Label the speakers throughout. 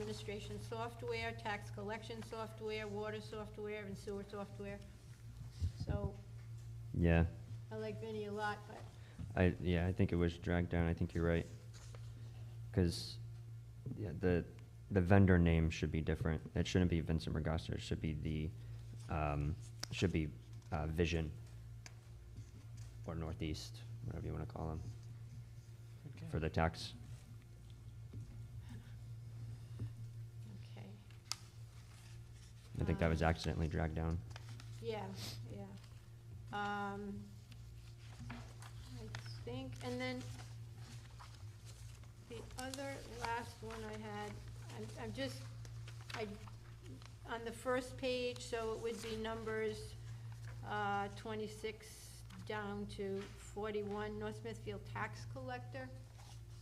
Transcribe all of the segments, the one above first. Speaker 1: administration software, tax collection software, water software, and sewer software. So,
Speaker 2: Yeah,
Speaker 1: I like Vinnie a lot, but
Speaker 2: I, yeah, I think it was dragged down, I think you're right. Cause, yeah, the, the vendor name should be different, it shouldn't be Vincent Regasta, it should be the, um, should be, uh, Vision. Or Northeast, whatever you wanna call them, for the tax.
Speaker 1: Okay,
Speaker 2: I think that was
Speaker 1: Um,
Speaker 2: accidentally dragged down.
Speaker 1: yeah, yeah. Um, I think, and then the other last one I had, I'm, I'm just, I, on the first page, so it would be numbers, uh, twenty-six down to forty-one, North Smithfield tax collector.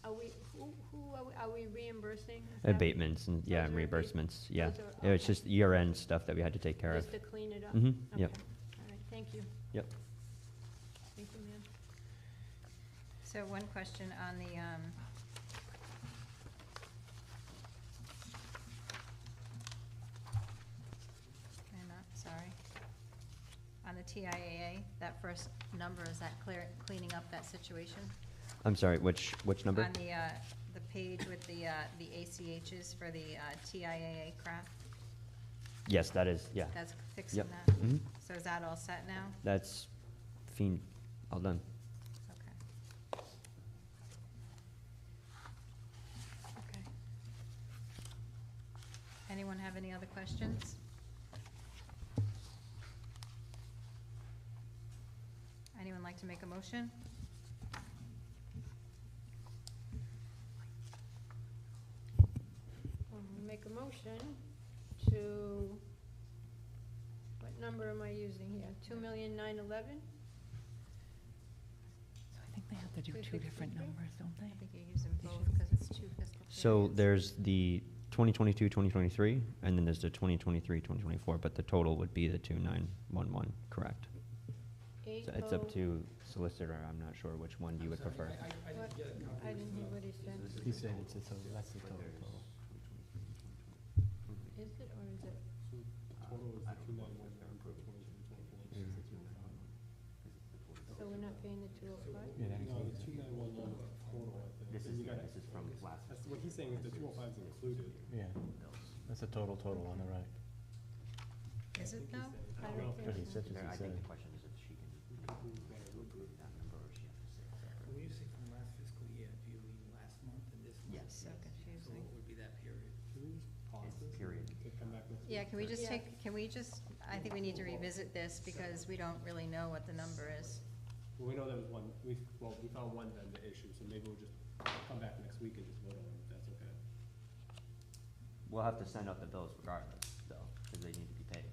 Speaker 1: Are we, who, who are we- are we reimbursing? Is that-
Speaker 2: Abatements and, yeah,
Speaker 1: Those are abate-
Speaker 2: reimbursements, yeah.
Speaker 1: those are-
Speaker 2: It was
Speaker 1: okay.
Speaker 2: just year-end stuff that we had to take care of.
Speaker 1: Just to clean it up?
Speaker 2: Mhm, yep.
Speaker 1: Okay. All right, thank you.
Speaker 2: Yep.
Speaker 1: Thank you, ma'am.
Speaker 3: So one question on the, um, I'm not, sorry. On the TIAA, that first number, is that clear, cleaning up that situation?
Speaker 2: I'm sorry, which, which number?
Speaker 3: On the, uh, the page with the, uh, the ACHs for the, uh, TIAA crap,
Speaker 2: Yes, that is, yeah.
Speaker 3: that's fixing
Speaker 2: Yep.
Speaker 3: that?
Speaker 2: Mhm.
Speaker 3: So is that all set now?
Speaker 2: That's fiend, all done.
Speaker 3: Okay. Okay. Anyone have any other questions? Anyone like to make a motion?
Speaker 1: I'll Make a motion to, what number am I using here? Two million nine eleven?
Speaker 4: So I think they have to do
Speaker 1: Three
Speaker 4: two different
Speaker 1: sixty-three?
Speaker 4: numbers, don't
Speaker 3: I
Speaker 4: they?
Speaker 3: think you're using both because it's two fiscal periods.
Speaker 2: So there's the 2022, 2023, and then there's the 2023, 2024, but the total would be the 2911, correct?
Speaker 1: Eight
Speaker 2: So It's
Speaker 1: oh-
Speaker 2: up to solicitor, I'm not sure which one you would prefer.
Speaker 1: what? I didn't hear what he said.
Speaker 5: He said it's a, total- that's the total.
Speaker 1: Is it or is it? So we're not paying the two oh five?
Speaker 5: This is, this is from last.
Speaker 6: What he's saying is the two oh five's included.
Speaker 5: Yeah, that's a total, total on the right.
Speaker 3: Is it though?
Speaker 1: I don't
Speaker 5: But he
Speaker 1: think so.
Speaker 5: said, as he said.
Speaker 7: question is if she can approve that number or she has to say it separately.
Speaker 8: When you say from last fiscal year, do you mean last month and this month?
Speaker 7: Yes.
Speaker 3: So
Speaker 8: So
Speaker 3: confusing.
Speaker 8: what would be that period?
Speaker 6: Can we just pause
Speaker 7: It's
Speaker 6: this?
Speaker 7: period.
Speaker 6: To come back next
Speaker 3: Yeah,
Speaker 6: week?
Speaker 3: can we just
Speaker 1: Yeah.
Speaker 3: take, can we just, I think we need to revisit this because we don't really know what the number is.
Speaker 6: Well, we know there was one, we, well, we found one vendor issue, so maybe we'll just come back next week and just vote on it, if that's okay.
Speaker 2: We'll have to send out the bills regardless, though, because they need to be paid.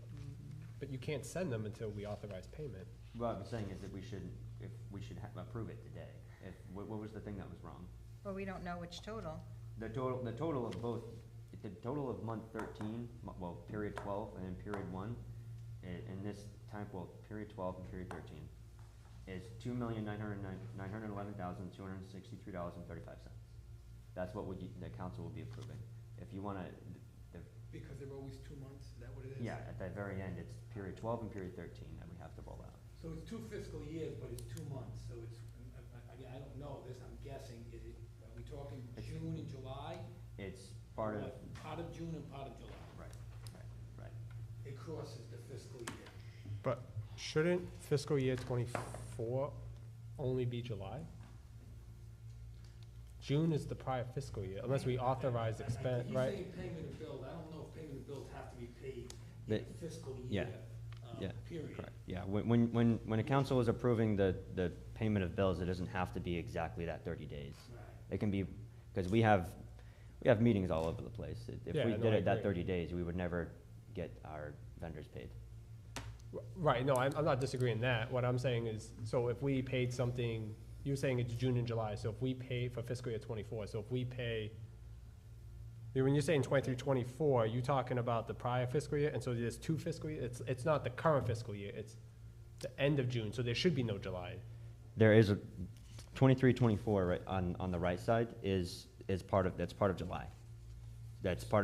Speaker 6: But you can't send them until we authorize payment.
Speaker 2: What I'm saying is that we should, if, we should ha- approve it today. If, what, what was the thing that was wrong?
Speaker 3: Well, we don't know which total.
Speaker 2: The total, the total of both, the total of month thirteen, mo- well, period twelve and then period one, i- in this time, well, period twelve and period thirteen, is two million nine hundred nine, nine hundred eleven thousand, two hundred sixty-three dollars and thirty-five cents. That's what would, you- the council will be approving. If you wanna, the,
Speaker 8: Because there are always two months, is that what it is?
Speaker 2: yeah, at the very end, it's period twelve and period thirteen that we have to roll out.
Speaker 8: So it's two fiscal years, but it's two months, so it's, I, I, I don't know this, I'm guessing, is it, are we talking
Speaker 2: It's-
Speaker 8: June and July?
Speaker 2: It's part of, right,
Speaker 8: Like, Part of June and part of July,
Speaker 2: right, right.
Speaker 8: it crosses the fiscal year.
Speaker 6: But shouldn't fiscal year twenty-four only be July? June is the prior fiscal year, unless we authorize
Speaker 8: I- I-
Speaker 6: expense, right?
Speaker 8: He's saying payment of bills, I don't know if payment of bills have to be paid
Speaker 2: They-
Speaker 8: in a fiscal
Speaker 2: yeah,
Speaker 8: year, uh,
Speaker 2: yeah,
Speaker 8: period.
Speaker 2: Correct, yeah, when, when, when, when a council is approving the, the payment of bills, it doesn't have to be exactly that thirty days.
Speaker 8: Right.
Speaker 2: It can be, because we have, we have meetings all over the place. If- If
Speaker 6: Yeah,
Speaker 2: we
Speaker 6: no,
Speaker 2: did
Speaker 6: I
Speaker 2: it that
Speaker 6: agree.
Speaker 2: thirty days, we would never get our vendors paid.
Speaker 6: Right, no, I'm, I'm not disagreeing that, what I'm saying is, so if we paid something, you were saying it's June and July, so if we pay for fiscal year twenty-four, so if we pay, when you're saying twenty-three, twenty-four, you talking about the prior fiscal year, and so there's two fiscal year, it's, it's not the current fiscal year, it's the end of June, so there should be no July.
Speaker 2: There is a, twenty-three, twenty-four, right, on, on the right side is, is part of, that's part of July. That's part of.